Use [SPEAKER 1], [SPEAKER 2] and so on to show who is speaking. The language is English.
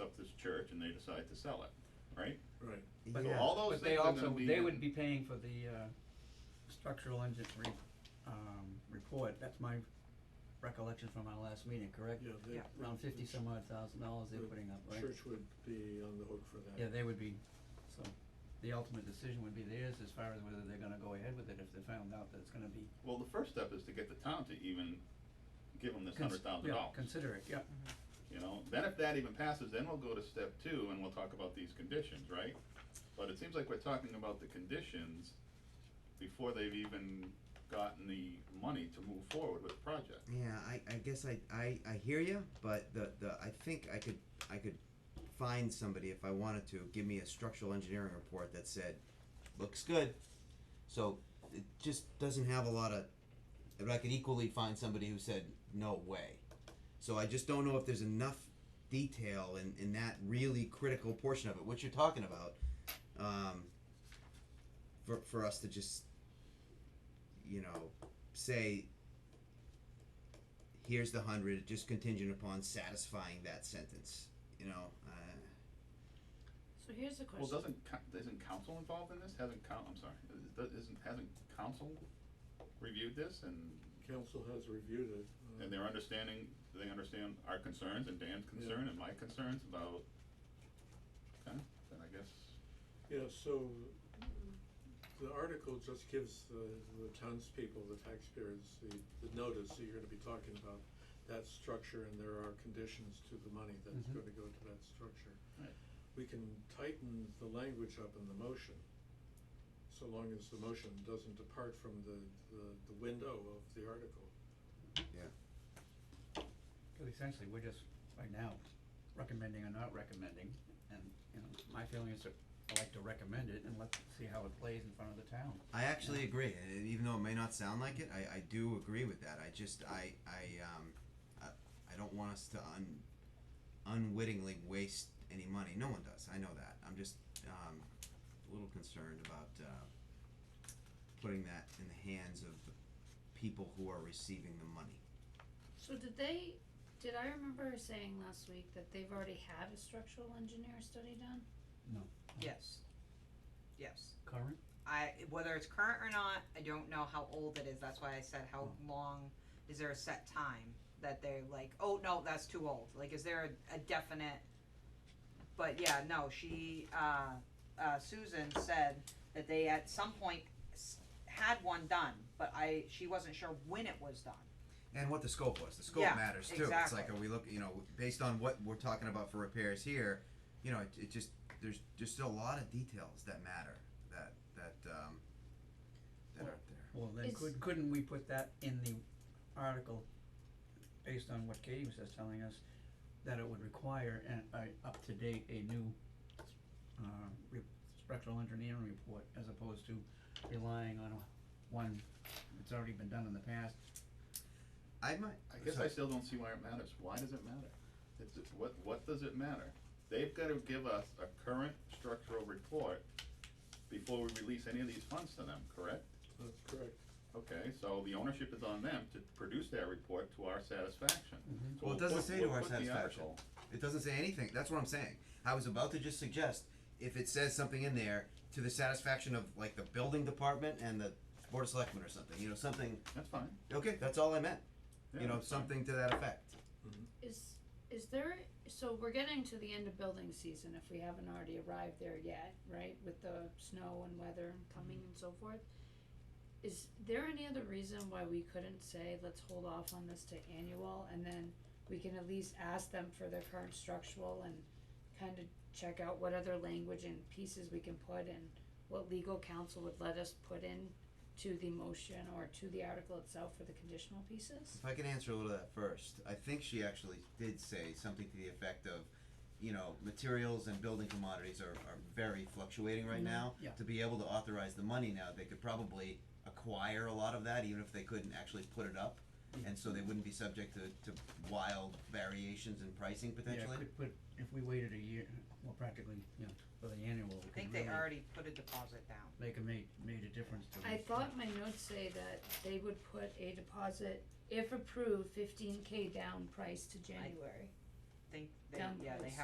[SPEAKER 1] up this church and they decide to sell it, right?
[SPEAKER 2] Right.
[SPEAKER 1] So
[SPEAKER 3] Yeah.
[SPEAKER 1] all those
[SPEAKER 4] But they
[SPEAKER 1] things are gonna
[SPEAKER 4] also,
[SPEAKER 1] be.
[SPEAKER 4] they would be paying for the, uh, structural engine re- um, report, that's my recollection from our last meeting, correct?
[SPEAKER 2] Yeah, they.
[SPEAKER 5] Yeah.
[SPEAKER 4] Around fifty some odd thousand dollars they're
[SPEAKER 2] the
[SPEAKER 4] putting up, right?
[SPEAKER 2] Church would be on the hook for that.
[SPEAKER 4] Yeah, they would be, so, the ultimate decision would be theirs as far as whether they're gonna go ahead with it, if they found out that it's gonna be.
[SPEAKER 1] Well, the first step is to get the town to even give them this
[SPEAKER 4] cons-
[SPEAKER 1] hundred thousand
[SPEAKER 4] yeah,
[SPEAKER 1] dollars.
[SPEAKER 4] Consider it, yeah,
[SPEAKER 1] You know, then if that even passes, then we'll go to step two and we'll talk about these conditions, right? But it seems like we're talking about the conditions before they've even gotten the money to move forward with the project.
[SPEAKER 3] Yeah, I, I guess I, I, I hear you, but the, the I think I could I could find somebody if I wanted to give me a structural engineering report that said looks good. So it just doesn't have a lot of. But I could equally find somebody who said no way. So I just don't know if there's enough detail in, in that really critical portion of it, what you're talking about, um, for for us to just you know say here's the hundred, just contingent upon satisfying that sentence. You know, uh,
[SPEAKER 5] So here's the
[SPEAKER 1] Well,
[SPEAKER 5] question.
[SPEAKER 1] doesn't, co- isn't council involved in this? Hasn't coun, I'm sorry, is- does- isn't, hasn't council reviewed this and,
[SPEAKER 2] Council has reviewed it. uh,
[SPEAKER 1] and they're understanding, they understand our concerns and Dan's concern and my concerns about, okay, then I guess,
[SPEAKER 2] Yeah, so the article just gives the, the townspeople, the taxpayers, the, the notice that you're gonna be talking about that structure and there are conditions to the money that's
[SPEAKER 4] Mhm.
[SPEAKER 2] gonna go to that structure.
[SPEAKER 1] Right.
[SPEAKER 2] We can tighten the language up in the motion, so long as the motion doesn't depart from the, the, the window of the article.
[SPEAKER 4] cause essentially, we're just, right now, recommending or not recommending, and, you know, my feeling is that I like to recommend it and let's see how it plays in front of the town.
[SPEAKER 3] I actually agree. and Even though it may not sound like it, I, I do agree with that. I just I I um I, I don't want us to un unwittingly waste any money. No one does. I know that. I'm just um a little concerned about uh, putting that in the hands of the people who are receiving the money.
[SPEAKER 5] So did they, did I remember saying last week that they've already had a structural engineer study done?
[SPEAKER 6] Yes. Yes.
[SPEAKER 4] Current?
[SPEAKER 6] I, whether it's current or not, I don't know how old it is, that's why I said how long, is there a set time that they're like, oh, no, that's too old, like, is there a, a definite? But yeah, no, she, uh, uh, Susan said that they at some point s- had one done, but I, she wasn't sure when it was done.
[SPEAKER 3] And what the scope was. The scope
[SPEAKER 6] Yeah,
[SPEAKER 3] matters too. It's
[SPEAKER 6] exactly.
[SPEAKER 3] like, are we look, you know, based on what we're talking about for repairs here, you know, it, it just, there's just a lot of details that matter that, that, um, that aren't there.
[SPEAKER 4] Well, then
[SPEAKER 5] Is-
[SPEAKER 4] could, couldn't we put that in the article, based on what Katie was just telling us, that it would require an, a up-to-date, a new, uh, re- structural engineering report, as opposed to relying on a- one that's already been done in the past?
[SPEAKER 3] I might,
[SPEAKER 1] I guess I still don't see why it matters. Why does it matter? It's, what, what does it matter? They've gotta give us a current structural report before we release any of these funds to them, correct?
[SPEAKER 2] That's correct.
[SPEAKER 1] Okay, so the ownership is on them to produce that report to our satisfaction. So
[SPEAKER 3] Mm-hmm. Well, it
[SPEAKER 1] we'll
[SPEAKER 3] doesn't
[SPEAKER 1] put-
[SPEAKER 3] say to
[SPEAKER 1] we'll
[SPEAKER 3] our
[SPEAKER 1] put the
[SPEAKER 3] satisfaction.
[SPEAKER 1] article-
[SPEAKER 3] it doesn't say anything. That's what I'm saying. I was about to just suggest if it says something in there to the satisfaction of like the building department and the board of selectmen or something, you know, something,
[SPEAKER 1] That's fine.
[SPEAKER 3] okay, that's all I meant.
[SPEAKER 1] Yeah,
[SPEAKER 3] You know,
[SPEAKER 1] that's fine.
[SPEAKER 3] something to that effect.
[SPEAKER 5] Is, is there, so we're getting to the end of building season if we haven't already arrived there yet, right? With the snow and weather and coming and so forth. Is there any other reason why we couldn't say, let's hold off on this to annual and then we can at least ask them for their current structural and kind of check out what other language and pieces we can put and what legal counsel would let us put in to the motion or to the article itself for the conditional pieces?
[SPEAKER 3] If I can answer a little of that first, I think she actually did say something to the effect of, you know, materials and building commodities are, are very fluctuating right now.
[SPEAKER 4] Mm-hmm. yeah.
[SPEAKER 3] To be able to authorize the money now, they could probably acquire a lot of that, even if they couldn't actually put it up.
[SPEAKER 4] Mm-hmm.
[SPEAKER 3] And so they wouldn't be subject to, to wild variations in pricing
[SPEAKER 4] Yeah,
[SPEAKER 3] potentially.
[SPEAKER 4] could put, if we waited a year, well, practically, you know, for the annual,
[SPEAKER 6] I
[SPEAKER 4] we
[SPEAKER 6] think
[SPEAKER 4] could
[SPEAKER 6] they
[SPEAKER 4] really
[SPEAKER 6] already put a deposit down.
[SPEAKER 4] make a made, made a difference to
[SPEAKER 5] I
[SPEAKER 4] this.
[SPEAKER 5] thought my notes say that they would put a deposit, if approved, fifteen K down price to January.
[SPEAKER 6] I think they,
[SPEAKER 5] Down
[SPEAKER 6] yeah, they
[SPEAKER 5] price.
[SPEAKER 6] have